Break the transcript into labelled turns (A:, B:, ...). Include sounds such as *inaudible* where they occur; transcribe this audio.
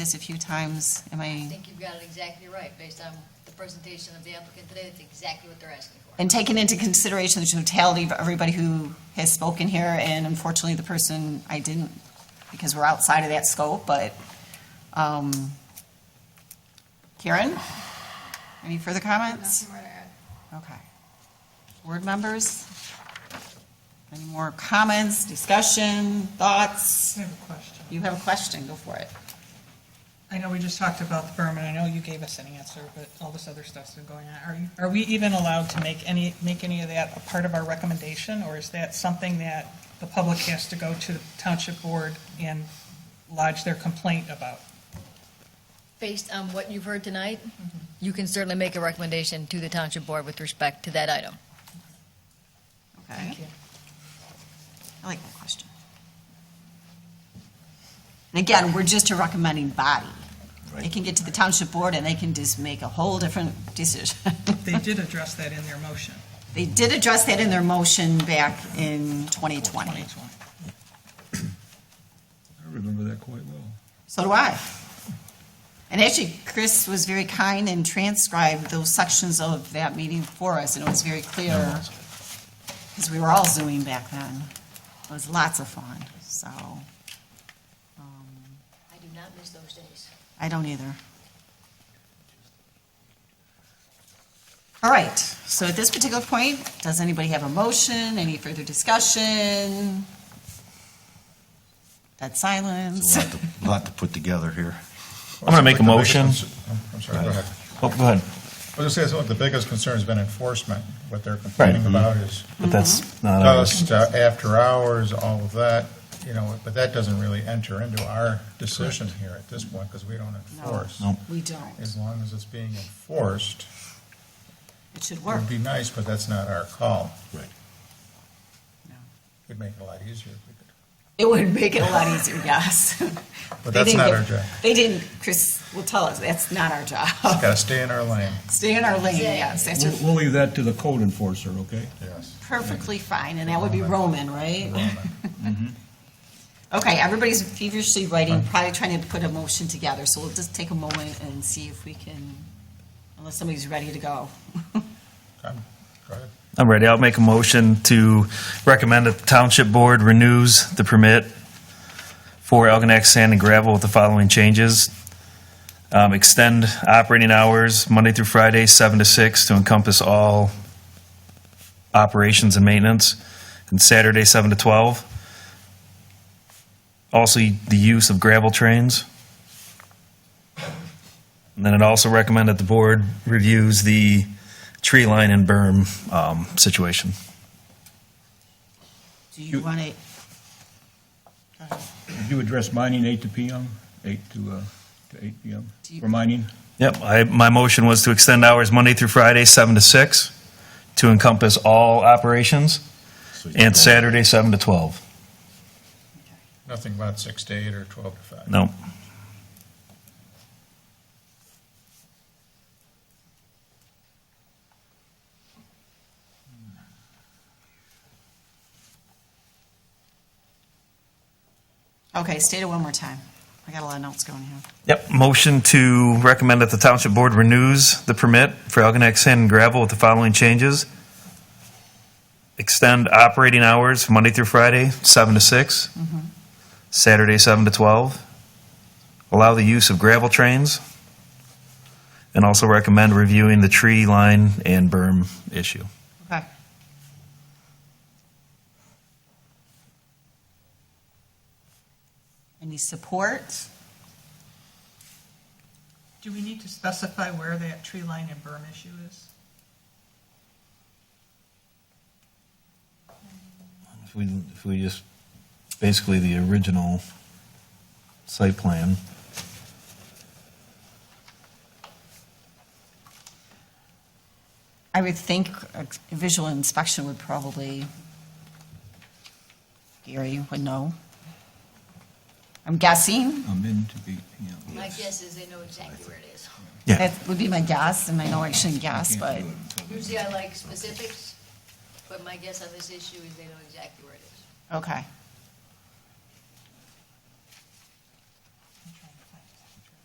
A: this a few times. Am
B: I
A: I,
B: think you've got it exactly right, based on the presentation of the applicant today, that's exactly what they're asking for.
A: and taking into consideration the totality of everybody who has spoken here, and unfortunately, the person I didn't, because we're outside of that scope, but, um, Karen? Any further comments?
C: Nothing more to add.
A: Okay. Board members? Any more comments, discussion, thoughts?
D: I have a question.
A: You have a question, go for it.
D: I know we just talked about the berm, and I know you gave us an answer, but all this other stuff's been going on. Are you, are we even allowed to make any, make any of that a part of our recommendation, or is that something that the public has to go to the township board and lodge their complaint about?
B: Based on what you've heard tonight, you can certainly make a recommendation to the township board with respect to that item.
A: Okay. I like that question. And again, we're just a recommending body. They can get to the township board and they can just make a whole different decision. *laughs*
D: They did address that in their motion,
A: They did address that in their motion back in 2020.
D: 2020.
E: I remember that quite well.
A: So do I. And actually, Chris was very kind and transcribed those sections of that meeting for us, and it was very clear, because we were all Zooming back then. It was lots of fun, so. um,
B: I do not miss those days.
A: I don't either. All right, so at this particular point, does anybody have a motion, any further discussion? That
F: It's
A: silence?
F: a lot to- lot to put together here.
G: I'm gonna make a motion.
H: I'm sorry, go ahead.
G: Oh, go ahead.
H: I was gonna say, so the biggest concern's been enforcement. What they're complaining about is
G: But that's not ours.
H: dust, uh, after hours, all of that, you know, but that doesn't really enter into our decision here at this point, because we don't enforce.
F: No.
A: We don't.
H: As long as it's being enforced,
A: It should
H: it
A: work.
H: would be nice, but that's not our call.
F: Right.
A: No.
H: It'd make it a lot easier if we could.
A: It would make it a lot easier, yes. They
H: *laughs* But that's
A: didn't
H: not
A: give-
H: our job.
A: They didn't, Chris will tell us, that's not our job. *laughs*
H: Gotta stay in our lane.
A: Stay in our lane, yes, that's
E: We'll- We'll leave that to the code enforcer, okay?
H: Yes.
A: perfectly fine, and that would be Roman, right?
H: Roman.
A: Okay, everybody's feverishly writing, probably trying to put a motion together, so we'll just take a moment and see if we can, unless somebody's ready to go.
H: I'm- Go ahead.
G: I'm ready. I'll make a motion to recommend that the township board renews the permit for Elginak Sand and Gravel with the following changes. Um, Extend operating hours Monday through Friday, 7 to 6, to encompass all operations and maintenance, and Saturday, 7 to 12. Also, the use of gravel trains. And then it also recommend that the board reviews the tree line and berm um, situation.
A: Do you want to,
E: Did you address mining eight to PM, eight to, uh, to eight PM
A: Do you-
E: for mining?
G: Yep, I, my motion was to extend hours Monday through Friday, seven to six, to encompass all operations,
F: So you
G: and
F: go-
G: Saturday, seven to twelve.
H: Nothing about six to eight or 12 to five.
G: No,
A: okay, state it one more time. I got a lot of notes going here.
G: yep, motion to recommend that the township board renews the permit for Algonac Sand and Gravel with the following changes. Extend operating hours Monday through Friday, seven to six, Saturday, seven to twelve. Allow the use of gravel trains, and also recommend reviewing the tree line and berm issue.
A: Okay. Any support?
D: Do we need to specify where that tree line and berm issue is?
F: If we, if we just, basically the original site plan.
A: I would think a visual inspection would probably, Gary would know. I'm guessing,
E: I'm in to eight PM.
B: My guess is they know exactly where it is.
G: Yeah.
A: that would be my guess, and I know I shouldn't guess,
E: Can't
A: but.
E: do it until the-
B: Usually I like specifics, but my guess on this issue is they know exactly where it is.
A: Okay.